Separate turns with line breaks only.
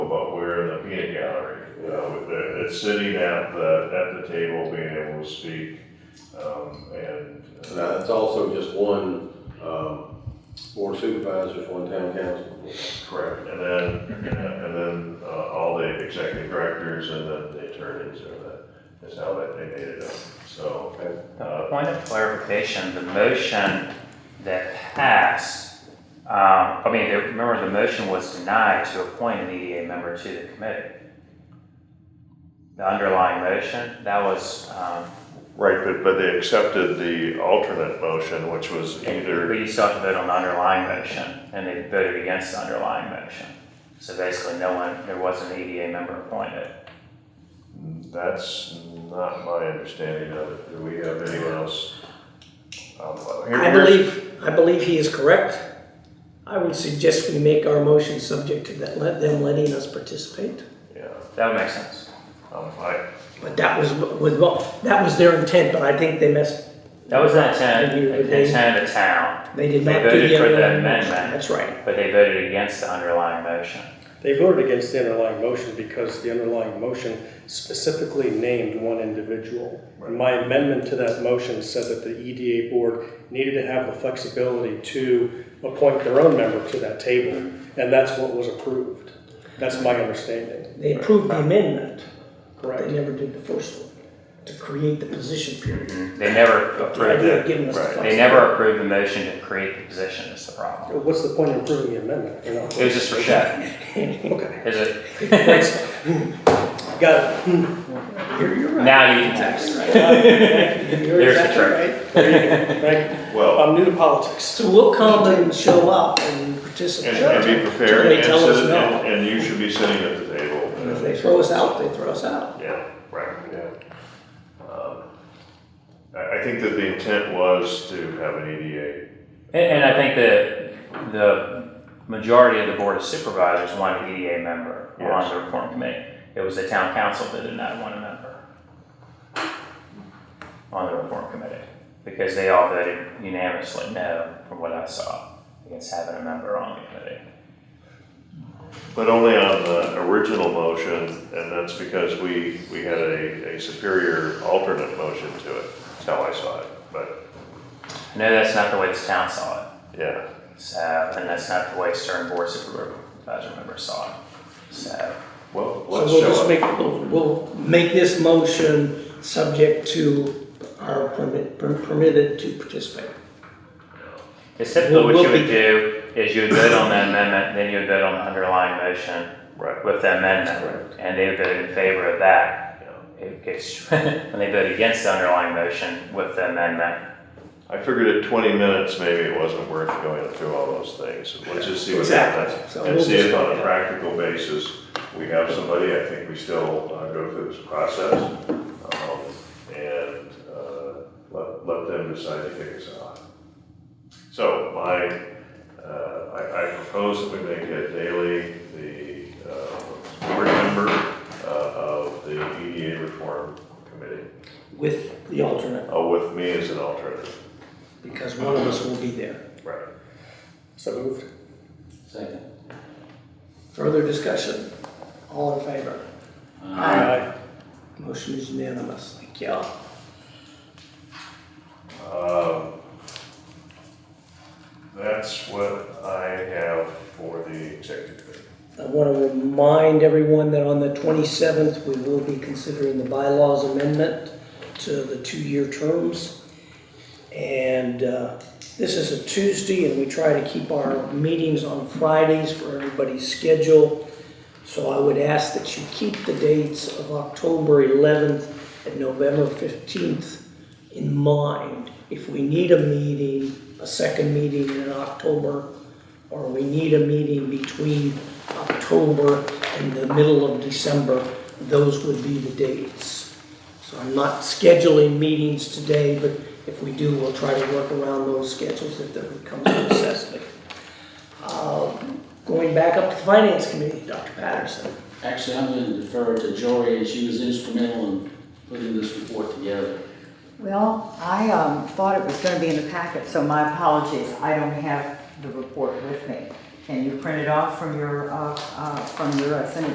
sitting at the, at the table, being able to speak, um, and.
And that's also just one, um, board supervisors, one town council.
Correct. And then, and then uh, all the executive directors and then the attorneys are that, is how that they made it up, so. uh,
A Point of clarification, the motion that passed, um, I mean, the- remember, the motion was denied to appoint an EDA member to the committee. The underlying motion, that was, um,
Right, but, but they accepted the alternate motion, which was
but you still have to vote on the underlying motion, and they voted against the underlying motion. So basically, no one, there wasn't an EDA member appointed.
That's not my understanding of it. Do we have anyone else? Um, here-
I
here's-
believe, I believe he is correct. I would suggest we make our motion subject to that, let them letting us participate.
Yeah,
That would make sense.
um, I,
But that was, was, well, that was their intent, but I think they messed,
That was the intent,
Maybe
the
they-
intent of the town,
they did
They
not do
voted
the
for the
underlying motion.
amendment.
That's right.
but they voted against the underlying motion.
They voted against the underlying motion because the underlying motion specifically named one individual. And my amendment to that motion said that the EDA board needed to have the flexibility to appoint their own member to that table, and that's what was approved. That's my understanding,
They approved the amendment, but
correct?
they never did the first one, to create the position period.
They never
The
approved
idea
it.
of giving us the
Right.
Mm-hmm. They
flexibility.
never approved the motion to create the position is the problem.
What's the point of approving the amendment? You're not-
It was just for show.
Okay,
Is it?
got it.
You're, you're right.
Now you can text.
You're
There's the
exactly
trick.
right.
Thank you.
well,
I'm new to politics.
So we'll come and show up and
and,
participate.
and be prepared
Until
and
they tell us
sit,
no.
and, and you should be sitting at the table.
And if they throw us out, they throw us out.
Yeah, right, yeah. Um, I, I think that the intent was to have an E EDA.
And, and I think that the majority of the board of supervisors wanted an EDA member on
Yes.
the reform committee. It was the town council that did not want a member on the reform committee because they all voted unanimously no, from what I saw, against having a member on the committee.
But only on the original motion, and that's because we, we had a, a superior alternate motion to it. That's how I saw it, but,
No, that's not the way this town saw it.
yeah.
So, and that's not the way Stern Board Supervisor members saw it. So,
Well,
So
let's
we'll just
show up.
make, we'll, we'll make this motion subject to our permit, per- permitted to participate.
it's typically what
We'll-
you
we'll
would do is you would vote on the amendment, then you would vote on the underlying motion
Right,
with the amendment. And they would vote in favor of that.
yeah.
It gets, and they vote against the underlying motion with the amendment.
I figured at twenty minutes, maybe it wasn't worth going through all those things. Let's just see what
Exactly.
happens.
So
And
we'll
see if
just-
on a practical basis, we have somebody, I think we still uh, go through this process. um, And uh, let, let them decide to kick us out. So my, uh, I, I propose that we make it daily the uh, board member uh, of the EDA reform committee,
With the alternate,
uh, with me as an alternate.
because one of us will be there.
Right.
So moved.
Further discussion? All in favor?
Aye.
Motion is unanimous. Thank you.
Um, That's what I have for the executive. committee.
I want to remind everyone that on the 27th, we will be considering the bylaws amendment to the two-year terms. And uh, this is a Tuesday, and we try to keep our meetings on Fridays for everybody's schedule. So I would ask that you keep the dates of October 11th and November 15th in mind. If we need a meeting, a second meeting in October, or we need a meeting between October and the middle of December, those would be the dates. So I'm not scheduling meetings today, but if we do, we'll try to work around those schedules if there becomes a necessity. Um, Going back up to the Finance Committee, Dr. Patterson.
Actually, I'm going to defer to Jory, she was instrumental in putting this report together.
Well, I um, thought it was going to be in the packet, so my apologies. I don't have the report with me. Can you print it off from your, uh, uh, from your uh, Senate